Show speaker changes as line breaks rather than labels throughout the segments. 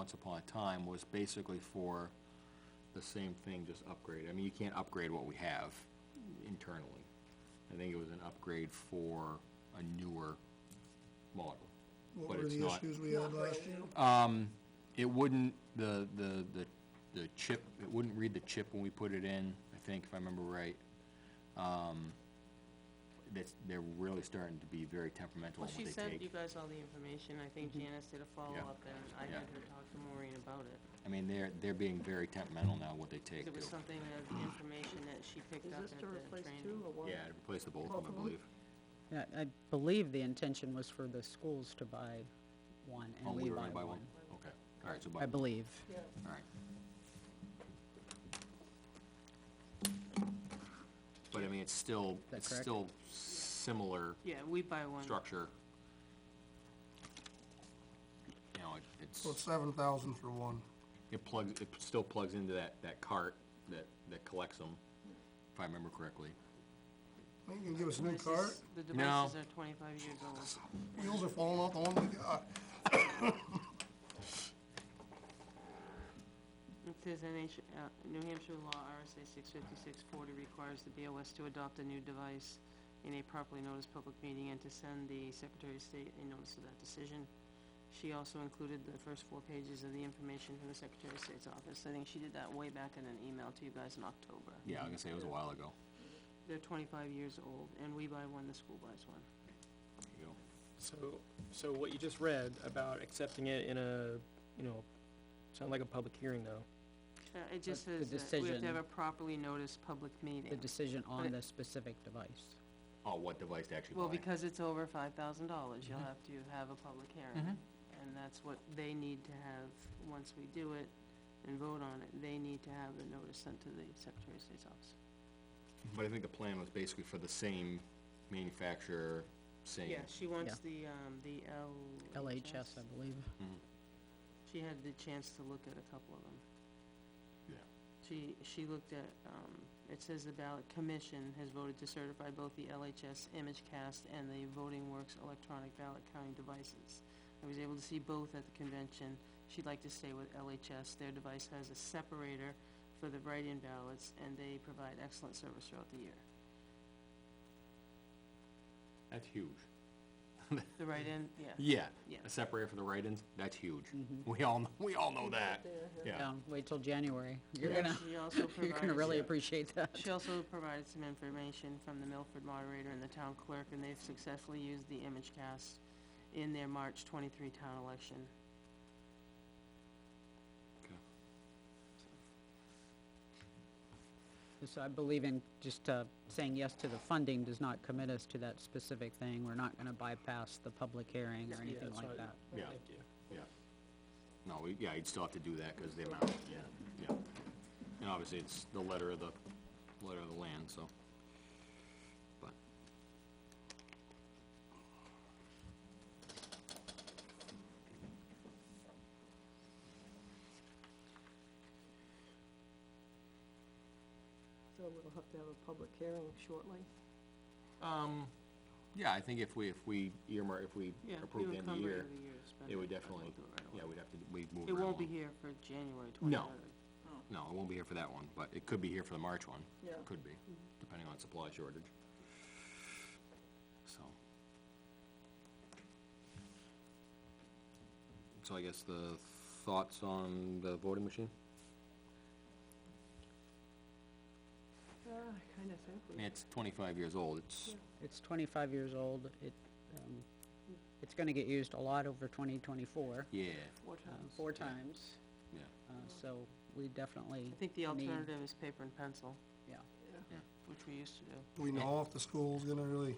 once upon a time was basically for the same thing, just upgrade. I mean, you can't upgrade what we have internally. I think it was an upgrade for a newer model.
What
but
were
it's
the
not-
issues we had last year?
It wouldn't, the, the, the, the chip, it wouldn't read the chip when we put it in, I think, if I remember right. Um, that's, they're really starting to be very temperamental
Well,
in
she
what they
sent you
take. Mm-hmm.
guys all the information, I think Janice did a follow-up, and I
Yeah.
had her talk to Maureen about it.
I mean, they're, they're being very temperamental now, what they take
There
too.
was something of information that she picked
Is
up
this
at
to
the
replace
training.
two or what?
Yeah, to replace the both of them, I believe.
Yeah, I believe the intention was for the schools to buy one,
Oh,
and we
were
buy
gonna buy
one.
Okay, all right, so buy, all
I believe.
Yeah,
right. But I mean, it's still,
that
it's
correct?
still similar
Yeah, we buy one.
structure. You know, it- it's.
So seven thousand for one.
It plugs, it still plugs into that, that cart that, that collects them, if I remember correctly.
Well, You can give us a new
This
cart.
is- The
No.
devices are twenty-five years old.
Wheels are falling off the one we got.
It says NH, uh, New Hampshire law, RSA six fifty-six forty requires the BOS to adopt a new device in a properly noticed public meeting and to send the Secretary of State a notice of that decision. She also included the first four pages of the information from the Secretary of State's office. I think she did that way back in an email to you guys in October.
Yeah, I was gonna say, it was a while ago.
They're twenty-five years old, and we buy one, the school buys one.
There you go.
So, so what you just read about accepting it in a, you know, sound like a public hearing though.
Uh, it just
But the
says that we have to have
decision-
a properly noticed public
The
meeting.
decision
But-
on the specific device.
Oh, what device to actually buy?
Well, because it's over five thousand dollars, you'll have to have a public hearing. And that's what they need to have, once we do it and vote on it, they need to have the notice sent to the Secretary of State's office.
But I think the plan was basically for the same manufacturer, same.
Yeah, she wants
Yeah.
the, um, the L.
LHS, I believe.
She had the chance to look at a couple of them.
Yeah.
She, she looked at, um, it says the ballot commission has voted to certify both the LHS ImageCast and the Voting Works electronic ballot counting devices. I was able to see both at the convention. She'd like to stay with LHS. Their device has a separator for the write-in ballots, and they provide excellent service throughout the year.
That's huge.
The write-in, yeah.
Yeah,
Yeah. Mm-hmm.
a separator for the write-ins, that's huge. We all, kn- we all know that. Yeah,
Yeah, wait till January. You're
Yeah.
gonna,
She also
you're gonna
provides-
really appreciate that.
She also provided some information from the Milford moderator and the town clerk, and they've successfully used the image cast in their March twenty-three town election.
So I believe in just uh, saying yes to the funding does not commit us to that specific thing. We're not gonna bypass the public hearing
Yeah,
or anything
that's
like
right.
that.
yeah,
Thank you.
yeah. No, we, yeah, you'd still have to do that, cause the amount, yeah, yeah. And obviously, it's the letter of the, letter of the land, so. But,
so we'll have to have a public hearing shortly.
Um, yeah, I think if we, if we earmark, if we
Yeah, we
approve
would
the end of
come
the
ready
year,
to the year to spend
it would
but we'll
definitely,
do it right
yeah,
away.
we'd have to, we'd move
It
right
won't be
along.
here for January
No.
twenty-third.
No, it won't be here for that one, but it could be here for the March one.
Yeah.
Could be, depending on supply shortage. So. So I guess the thoughts on the voting machine?
Uh, I kinda think
I
we,
mean, it's twenty-five years old, it's,
It's twenty-five years old. It, um, it's gonna get used a lot over twenty twenty-four,
yeah,
Four
uh,
times.
four times.
yeah.
Uh, so we definitely
I think the
need-
alternative is paper and pencil,
Yeah.
yeah,
which we used to do.
We know if the school's gonna really,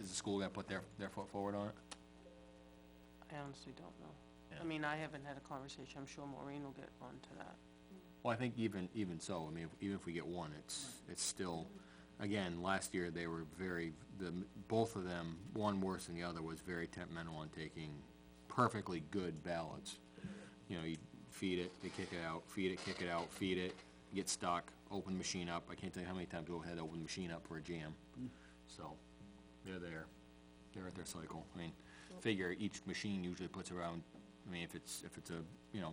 Is the school gonna put their, their foot forward on it?
I honestly don't know.
Yeah.
I mean, I haven't had a conversation. I'm sure Maureen will get on to that.
Well, I think even, even so, I mean, if- even if we get one, it's, it's still, again, last year, they were very, the, m- both of them, one worse than the other, was very temperamental on taking perfectly good ballots. You know, you feed it, they kick it out, feed it, kick it out, feed it, get stuck, open the machine up, I can't tell you how many times we had to open the machine up for a jam. So, they're there, they're at their cycle, I mean, figure each machine usually puts around, I mean, if it's, if it's a, you know,